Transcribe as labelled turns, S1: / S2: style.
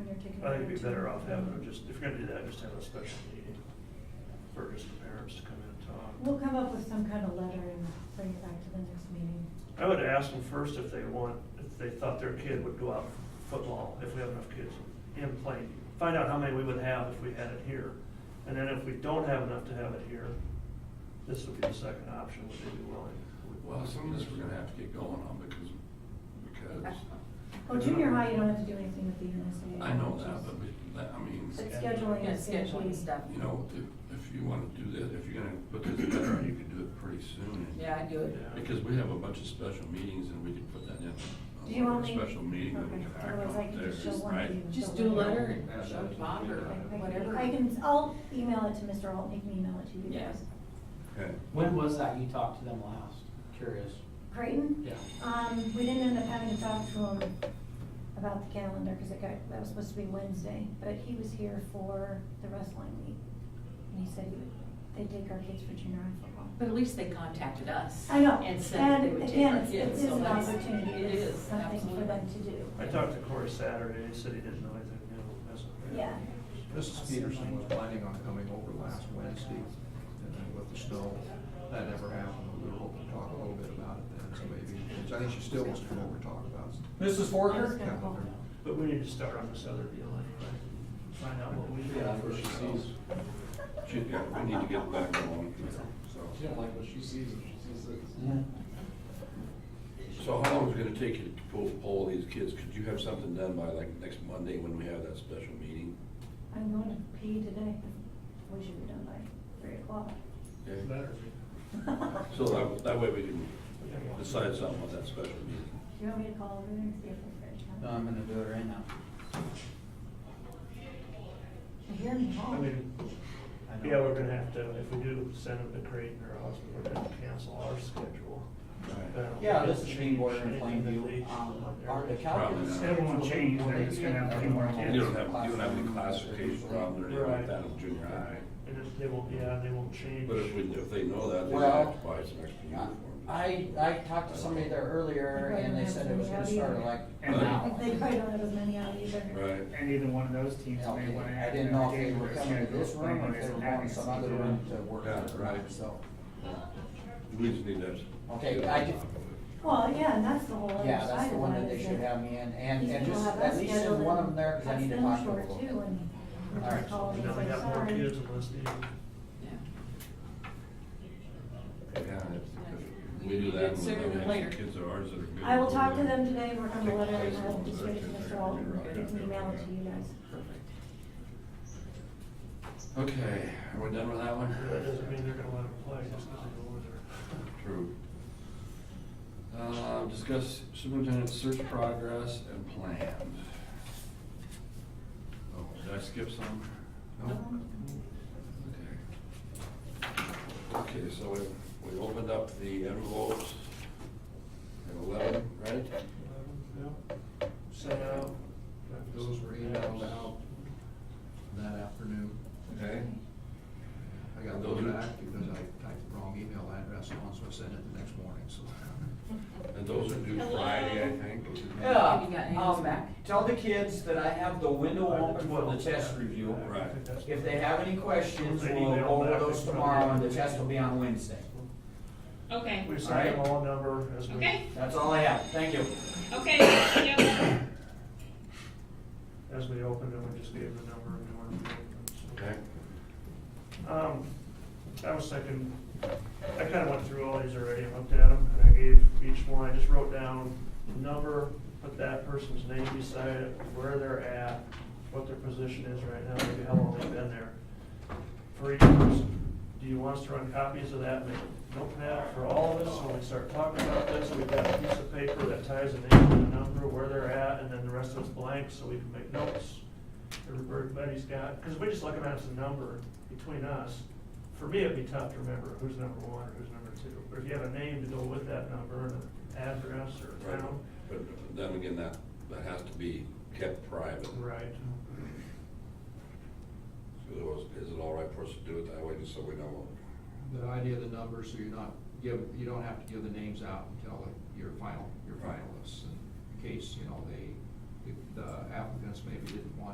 S1: I think it'd be better off having, a- just, if you're gonna do that, just have a special meeting for just the parents to come in
S2: We'll
S1: and talk.
S2: come up with some kind of letter and bring it back to the next meeting. Oh,
S1: I would ask them first if they want, if they thought their kid would go out for football, if we have enough kids in playing. Find out how many we would have if we had it here. And then if we don't have enough to have it here, this would be the second option, would they be willing?
S3: Well, some of this we're gonna have to get going on because, because.
S2: Well, junior high, you don't have to do anything with the NSA.
S3: I know that, but, we- that- I mean,
S2: But scheduling
S4: Yeah,
S2: is gonna be.
S4: scheduling stuff.
S3: you know, if, if you wanna do that, if you're gonna put this together, you could do it pretty soon. and-
S4: Yeah, I do it.
S1: Yeah.
S3: Because we have a bunch of special meetings and we could put that in. uh,
S2: Do you want me?
S3: Special meeting that we
S2: Okay,
S3: could act
S2: otherwise I
S3: on
S2: can
S3: there,
S2: just show one
S3: right?
S2: thing.
S4: Just do a letter and show Bob or
S2: I- I-
S4: whatever.
S2: I can, I'll email it to Mr. Alt, he can email it to you.
S4: Yes.
S2: guys.
S3: Okay.
S5: When was that you talked to them last? Curious.
S2: Creighton?
S5: Yeah.
S2: Um, we didn't end up having to talk to him about the calendar, cause it got, that was supposed to be Wednesday, but he was here for the wrestling meet. And he said he would, they'd take our kids for junior high football.
S4: But at least they contacted us.
S2: I know,
S4: And said they
S2: and
S4: would take
S2: again,
S4: our
S2: it's, it
S4: kids.
S2: is
S4: so
S2: an
S4: that's-
S2: opportunity,
S4: It
S2: it's
S4: is,
S2: something for
S4: absolutely.
S2: them to do.
S1: I talked to Corey Saturday, he said he didn't know anything new, that's.
S2: Yeah.
S6: Mrs. Peterson was planning on coming over last Wednesday, and then with the snow, that never happened. We were hoping to talk a little bit about it then, so maybe, I think she still wants to come over and talk about it.
S5: Mrs.
S2: Forker?
S6: Calendar.
S1: But we need to start on this other deal anyway, find out what we.
S5: Yeah, what she sees.
S3: Ju- Yeah, we need to get back going here, so.
S5: like what she sees and she sees this.
S3: So how long is it gonna take you to pull, poll these kids? Could you have something done by like next Monday when we have that special meeting?
S2: I'm going to pee today, we should be done by three o'clock.
S3: Okay? So that, that way we can decide something on that special meeting.
S2: Do you want me to call over there and see if they're ready?
S5: No, I'm gonna do it right now.
S2: I hear them
S1: I
S2: all.
S1: mean,
S5: I know.
S1: yeah, we're gonna have to, if we do send them to Creighton or Austin, we're gonna cancel our schedule.
S5: Yeah, this is being border in Plainview. Um, are the calculus.
S3: Probably not. It
S1: won't change, they're just gonna have a few more kids.
S3: You don't have, you don't have any classification problem or anything like that in junior high.
S1: And if they won't, yeah, they won't change.
S3: But if we, if they know that, they
S5: Well,
S3: have to buy some extra uniforms.
S5: I, I talked to somebody there earlier and they said it was gonna start at like
S7: And-
S5: now.
S2: They probably don't have as many out either.
S3: Right.
S7: And either one of those teams may want to
S5: I
S7: add
S5: didn't know
S7: another
S5: if they
S7: game
S5: were
S7: to their
S5: coming to
S7: schedule.
S5: this room or if they were going to some other room to work
S3: Yeah,
S5: out,
S3: right.
S5: so.
S3: We just need to. have some-
S5: Okay, I ju-
S2: Well, yeah, and that's the whole other
S5: Yeah,
S2: side
S5: that's the
S2: of
S5: one
S2: it,
S5: that they
S2: is
S5: should have me in and,
S2: these
S5: and
S2: people
S5: just
S2: have
S5: at
S2: us
S5: least send
S2: scheduled
S5: one of
S2: and
S5: them there because I
S2: cuts
S5: need to
S2: them
S5: talk to them.
S2: short too, and we
S5: All right.
S2: call and
S1: Now
S2: say,
S1: they got more
S2: "Sorry."
S1: kids unless they,
S3: Yeah, if- if we do that, we'll
S4: Sooner than
S3: have
S4: later.
S3: some kids of ours that are good.
S2: I will talk to
S3: We'll-
S2: them today, work on the letter, and
S3: Take
S2: I'll
S3: place
S2: just
S3: on
S2: give it to Mr.
S3: those kids.
S2: Alt,
S3: You're right.
S2: and email it to you guys.
S3: Okay, are we done with that one?
S1: that doesn't mean they're gonna let them play just because they go over there.
S3: True. Uh, discuss superintendent's search progress and plans. Oh, did I skip some? No? Okay. Okay, so we, we opened up the envelopes at eleven, right?
S1: Yeah. Set out.
S6: Those were emailed out that afternoon.
S3: Okay.
S6: I got a little bit active because I typed the wrong email address on, so I sent it the next morning, so.
S3: And those are due
S4: Hello.
S3: Friday, I think.
S4: Have you gotten
S5: Yeah,
S4: yours
S5: um,
S4: back?
S5: tell the kids that I have the window open for the test review.
S3: Right.
S5: If they have any questions,
S1: They
S5: we'll
S1: email
S5: go over
S1: back.
S5: those tomorrow and the test will be on Wednesday.
S8: Okay,
S1: We sent them all a number as we.
S8: okay,
S5: That's all I have. Thank you.
S8: okay, yep.
S1: as we opened them, we just gave the number and we opened
S3: Okay.
S1: Um, I was thinking, I kinda went through all these already and looked at them, and I gave each one, I just wrote down the number, put that person's name beside it, where they're at, what their position is right now, maybe how long they've been there. For each person, do you want us to run copies of that, make a notepad for all of us, when we start talking about this, we've got a piece of paper that ties the name to the number, where they're at, and then the rest of it's blank, so we can make notes everybody's got, because we just look at it as a number between us. For me, it'd be tough to remember who's number one or who's number two, but if you have a name to go with that number and an address or a
S3: Right.
S1: town.
S3: But then again, that, that has to be kept private.
S1: Right.
S3: So it was- Is it all right for us to do it that way, just so we know?
S6: The idea of the numbers, so you're not, give, you don't have to give the names out until your final, your
S3: Right.
S6: finalists. In case, you know, they, if the applicants maybe didn't want